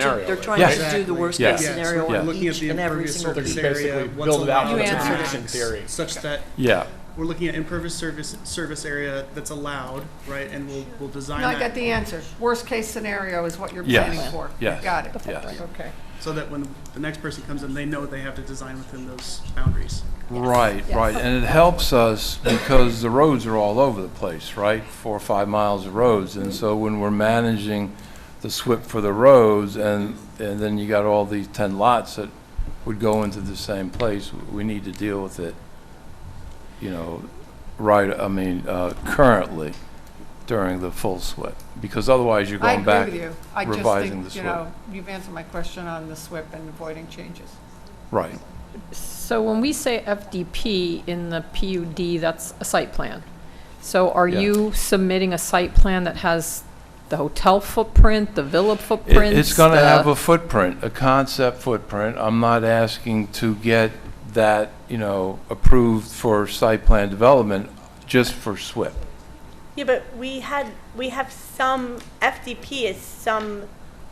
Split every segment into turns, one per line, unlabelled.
scenario.
They're
right?
trying
Yes.
to do the
Yeah.
worst-case
Yes.
scenario
Yeah.
on
Looking
each and every
impervious
single
surface
piece.
You basically
area, what's
build it out
allowed
with
to
a
be
production
maxed,
theory.
Such that
Yeah,
we're looking at impervious surface, service area that's allowed, right, and we'll, we'll design
No, I got
that
the answer. Worst-case scenario is what you're
Yes.
planning for.
Yes.
Got it.
Yes.
Okay.
so that when the next person comes in, they know they have to design within those boundaries.
right, right. And it helps us because the roads are all over the place, right? Four or five miles of roads. And so when we're managing the SWIP for the roads and, and then you got all these 10 lots that would go into the same place, we need to deal with it, you know, right, I mean, uh, currently during the full SWIP. Because otherwise you're
I
going
agree
back.
with you. I just
revising the
think, you
SWIP.
know, you've answered my question on the SWIP and avoiding changes.
Right.
So when we say FDP in the PUD, that's a site plan. So are
Yeah.
you submitting a site plan that has the hotel footprint, the villa
It-
footprint?
It's going to
uh,
have a footprint, a concept footprint. I'm not asking to get that, you know, approved for site plan development, just for SWIP.
Yeah, but we had, we have some, FDP is some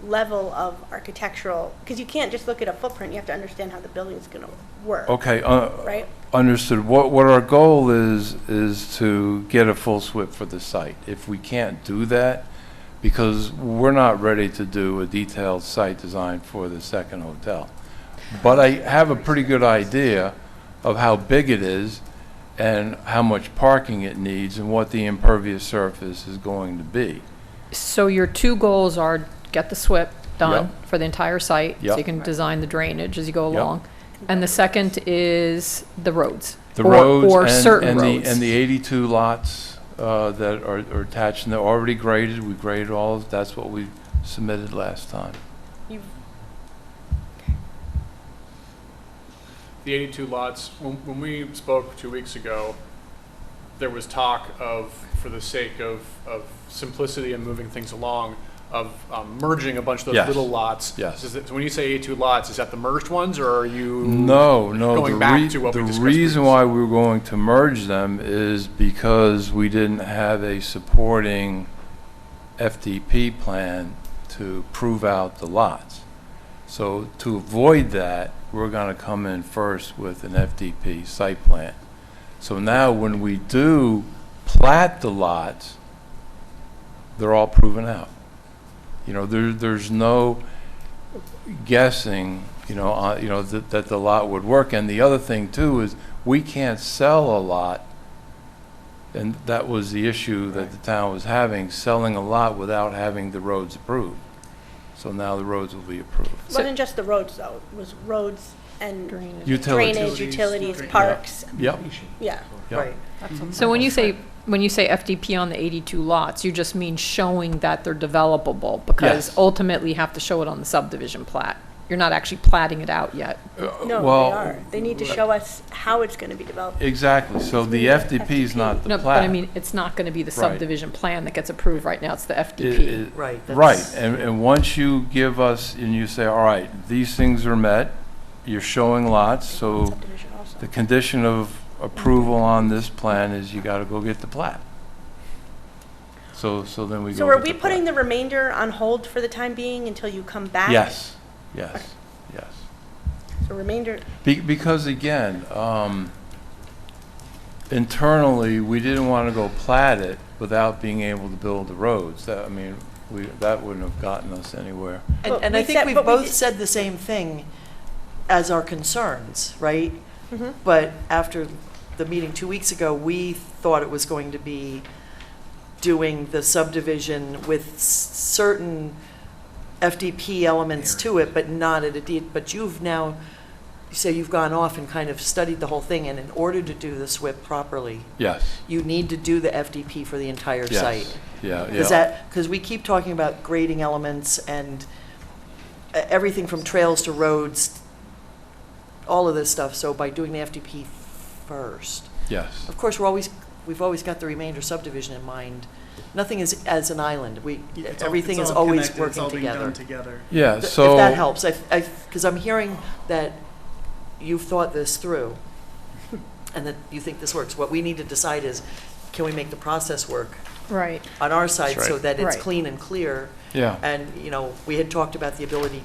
level of architectural, because you can't just look at a footprint, you have to understand how the building's gonna work,
Okay, uh,
right?
understood. What, what our goal is, is to get a full SWIP for the site. If we can't do that, because we're not ready to do a detailed site design for the second hotel. But I have a pretty good idea of how big it is and how much parking it needs and what the impervious surface is going to be.
So your two goals are get the SWIP done
Yep.
for the entire site, so
Yep.
you can design the drainage as you go
Yep.
along. And the second is the roads.
The
or-
roads
Or
and-
certain
and the-
roads.
And the 82 lots uh, that are are attached, and they're already graded, we graded all, of- that's what we submitted last time.
The 82 lots, when, when we spoke two weeks ago, there was talk of, for the sake of, of simplicity and moving things along, of um, merging a bunch of those
Yes.
little lots.
Yes.
Is it- So when you say 82 lots, is that the merged ones, or are you?
No, no.
going
the
back
rea-
to what we discussed
The
previously.
reason why we were going to merge them is because we didn't have a supporting FDP plan to prove out the lots. So to avoid that, we're going to come in first with an FDP site plan. So now when we do plat the lots, they're all proven out. You know, there, there's no guessing, you know, uh, you know, that, that the lot would work. And the other thing too is we can't sell a lot. And that was the issue that the town was having, selling a lot without having the roads approved. So now the roads will be approved.
So-
Wasn't just the roads though, it was roads and
Drainage.
Utilities.
drainage, utilities,
Utilities.
parks,
Yep,
yeah.
yep.
So when you say, when you say FDP on the 82 lots, you just mean showing that they're developable?
Yes.
Because ultimately you have to show it on the subdivision plat. You're not actually platting it out yet.
No, they
Uh, Well,
are, they need to show us how it's gonna be developed.
Exactly. So the FDP is not the
No,
plat.
but I mean, it's not going to be the
Right.
subdivision plan that gets approved right now, it's the
It-
FDP.
it-
Right,
Right,
that's-
and, and once you give us, and you say, all right, these things are met, you're showing lots, so
Subdivision also.
the condition of approval on this plan is you gotta go get the plat. So, so then we go.
So are
get
we
plat.
putting the remainder on hold for the time being until you come back?
Yes, yes, yes.
So remainder,
Be- Because again, um, internally, we didn't want to go plat it without being able to build the roads. That, I mean, we, that wouldn't have gotten us anywhere.
And,
But
and I
we
think
said-
we've
but we
both
did-
said the same thing as our concerns, right?
Mm-hmm.
But after the meeting two weeks ago, we thought it was going to be doing the subdivision with s- certain FDP elements to it, but not at a deed, but you've now, you say you've gone off and kind of studied the whole thing, and in order to do the SWIP properly,
Yes,
you need to do the FDP for the entire site.
yes, yeah, yeah.
Because that, because we keep talking about grading elements and e- everything from trails to roads, all of this stuff, so by doing the FDP first.
Yes,
Of course, we're always, we've always got the remainder subdivision in mind. Nothing is as an island. We,
It's all-
everything
it's
is
all
always
connected, it's
working
all being done
together.
Together.
yeah,
Th- If
so.
that helps, I, because I'm hearing that you've thought this through and that you think this works. What we need to decide is, can we make the process work?
Right.
on our side so that it's
Right.
clean and clear
Yeah.
And, you know, we had talked about the ability